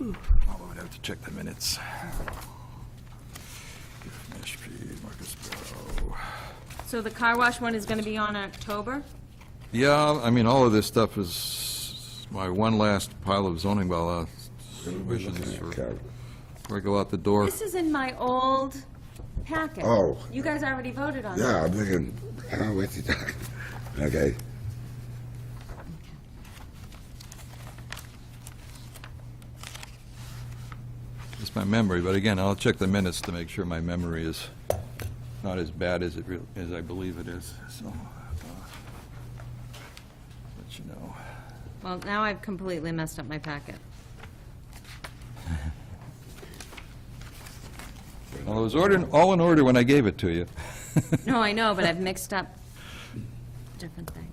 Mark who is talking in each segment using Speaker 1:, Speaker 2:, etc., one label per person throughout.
Speaker 1: Although Oh, I'd have to check the minutes. Mashpee, Marcus Barrow.
Speaker 2: So the car wash one is going to be on October?
Speaker 1: Yeah, I mean, all of this stuff is my one last pile of zoning bylaw wishes for, before I go out the door.
Speaker 2: This is in my old packet.
Speaker 3: Oh.
Speaker 2: You guys already voted on it.
Speaker 3: Yeah, I'm thinking, oh, what's he talking? Okay.
Speaker 1: It's my memory, but again, I'll check the minutes to make sure my memory is not as bad as it real, as I believe it is, so. uh, Let you know.
Speaker 2: Well, now I've completely messed up my packet.
Speaker 1: Well, it was ordered, all in order when I gave it to you.
Speaker 2: No, I know, but I've mixed up different things.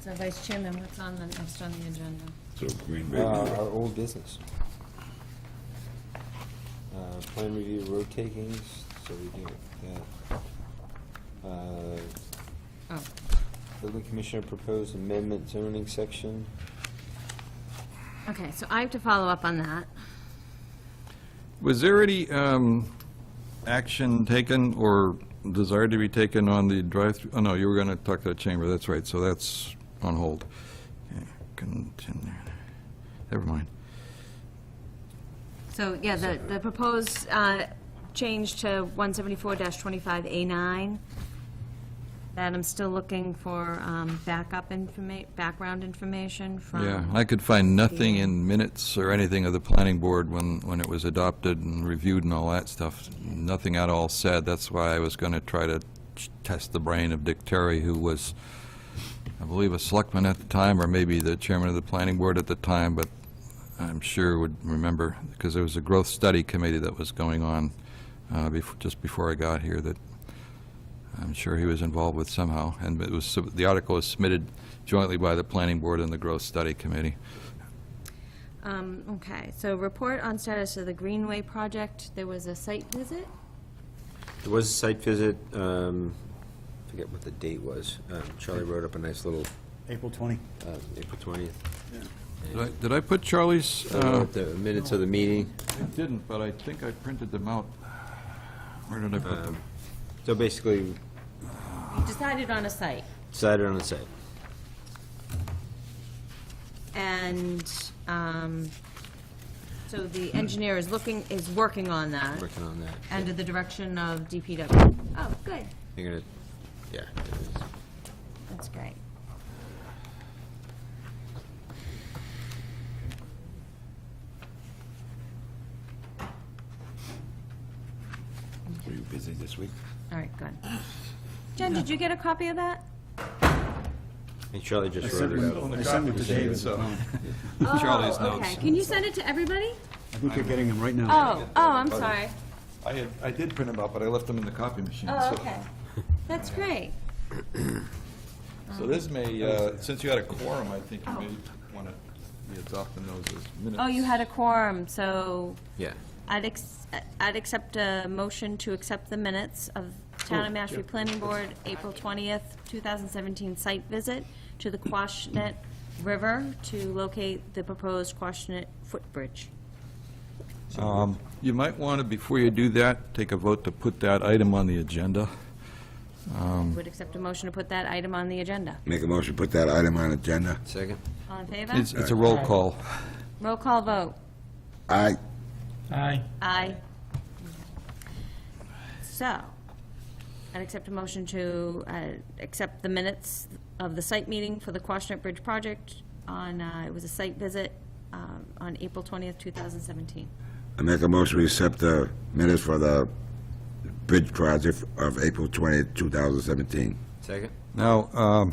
Speaker 2: So Vice Chairman, what's on the, next on the agenda?
Speaker 3: So Green
Speaker 4: Uh,
Speaker 3: Bay.
Speaker 4: Our old business. Uh, Plan review road takings, so we do that. Uh,
Speaker 2: Oh,
Speaker 4: Building commissioner proposed amendment zoning section.
Speaker 2: okay, so I have to follow up on that.
Speaker 1: Was there any um, action taken or desire to be taken on the drive-through? Oh, no, you were going to talk to the chamber, that's right, so that's on hold. Okay, Continue. Never mind.
Speaker 2: So, yeah, the, the proposed uh, change to 174-25A9, that I'm still looking for um, backup informa, background information from.
Speaker 1: Yeah, I could find nothing in minutes or anything of the planning board when, when it was adopted and reviewed and all that stuff. Nothing at all said. That's why I was going to try to ch- test the brain of Dick Terry, who was, I believe, a selectman at the time, or maybe the chairman of the planning board at the time, but I'm sure would remember, because there was a growth study committee that was going on uh, bef- just before I got here that I'm sure he was involved with somehow. And it was, sub- the article was submitted jointly by the planning board and the growth study committee.
Speaker 2: Um, Okay, so report on status of the Greenway project, there was a site visit?
Speaker 4: There was a site visit, um, I forget what the date was. Um, Charlie wrote up a nice little,
Speaker 5: April 20.
Speaker 4: uh, April 20th.
Speaker 1: Did I- Did I put Charlie's?
Speaker 4: I
Speaker 1: uh,
Speaker 4: wrote The minutes of the meeting.
Speaker 1: I didn't, but I think I printed them out. Where did I put them?
Speaker 4: So basically,
Speaker 2: We Decided on a site,
Speaker 4: decided on the site.
Speaker 2: and um, so the engineer is looking, is working on that,
Speaker 4: working on that.
Speaker 2: under the direction of DPW. Oh, good,
Speaker 4: You're gonna, yeah. there it is.
Speaker 2: that's great.
Speaker 3: Were you busy this week?
Speaker 2: All right, good. Jen, did you get a copy of that?
Speaker 4: And Charlie just wrote it out.
Speaker 5: I sent it to David. I
Speaker 1: Charlie's
Speaker 2: Oh,
Speaker 1: notes.
Speaker 2: Okay, can you send it to everybody?
Speaker 5: think you're getting them right now.
Speaker 2: Oh, oh, I'm sorry.
Speaker 1: I had, I did print them out, but I left them in the copy machine.
Speaker 2: Oh,
Speaker 1: so-
Speaker 2: okay. That's great.
Speaker 1: So this may, uh, since you had a quorum, I think you may want to be adopting those as minutes.
Speaker 2: Oh, you had a quorum, so
Speaker 4: Yeah.
Speaker 2: I'd, ex- I'd accept a motion to accept the minutes of
Speaker 1: Oh,
Speaker 2: Town of Mashpee Planning Board, April 20th, 2017 site visit to the Quashnet River to locate the proposed Quashnet footbridge.
Speaker 1: Um, You might want to, before you do that, take a vote to put that item on the agenda.
Speaker 2: Would accept a motion to put that item on the agenda.
Speaker 3: Make a motion, put that item on agenda.
Speaker 4: Second?
Speaker 2: All in favor?
Speaker 1: It's it's a roll call.
Speaker 2: Roll call vote.
Speaker 3: I,
Speaker 6: Aye.
Speaker 2: Aye. So, I'd accept a motion to uh, accept the minutes of the site meeting for the Quashnet Bridge project on, uh, it was a site visit um, on April 20th, 2017.
Speaker 3: I make a motion, we accept the minutes for the bridge project of April twentieth, two thousand seventeen.
Speaker 4: Second?
Speaker 1: Now, um,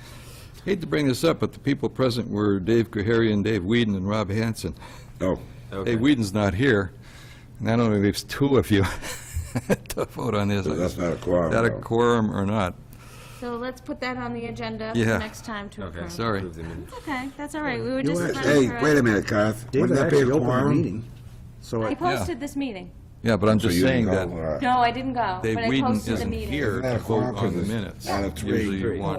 Speaker 1: hate to bring this up, but the people present were Dave Koharian, Dave Whedon, and Rob Hanson.
Speaker 3: Oh,
Speaker 4: Okay.
Speaker 1: Dave Whedon's not here, and that only leaves two of you to vote on this.
Speaker 3: so that's
Speaker 1: Is
Speaker 3: not a quorum,
Speaker 1: that a
Speaker 3: though.
Speaker 1: quorum or not?
Speaker 2: So let's put that on the agenda
Speaker 1: Yeah.
Speaker 2: for next time to
Speaker 4: Okay.
Speaker 2: approve.
Speaker 1: Sorry.
Speaker 4: Approve the minutes.
Speaker 2: Okay, that's all right, we were
Speaker 3: You
Speaker 2: just.
Speaker 3: were-
Speaker 2: trying
Speaker 3: Hey,
Speaker 2: to-
Speaker 3: wait a minute, Garth. Wouldn't that be a quorum?
Speaker 5: So
Speaker 2: I
Speaker 5: I-
Speaker 2: posted this meeting.
Speaker 1: Yeah, but I'm
Speaker 3: So
Speaker 1: just
Speaker 3: you
Speaker 1: saying
Speaker 3: can
Speaker 1: that
Speaker 3: call, uh,
Speaker 2: No, I didn't go,
Speaker 1: Dave
Speaker 2: but I
Speaker 1: Whedon
Speaker 2: posted the
Speaker 1: isn't
Speaker 2: meeting.
Speaker 1: here
Speaker 3: Isn't that
Speaker 1: to
Speaker 3: a quorum
Speaker 1: vote
Speaker 3: 'cause
Speaker 1: on the
Speaker 3: it's
Speaker 1: minutes.
Speaker 3: out of three?
Speaker 1: Usually you
Speaker 4: Three.
Speaker 1: want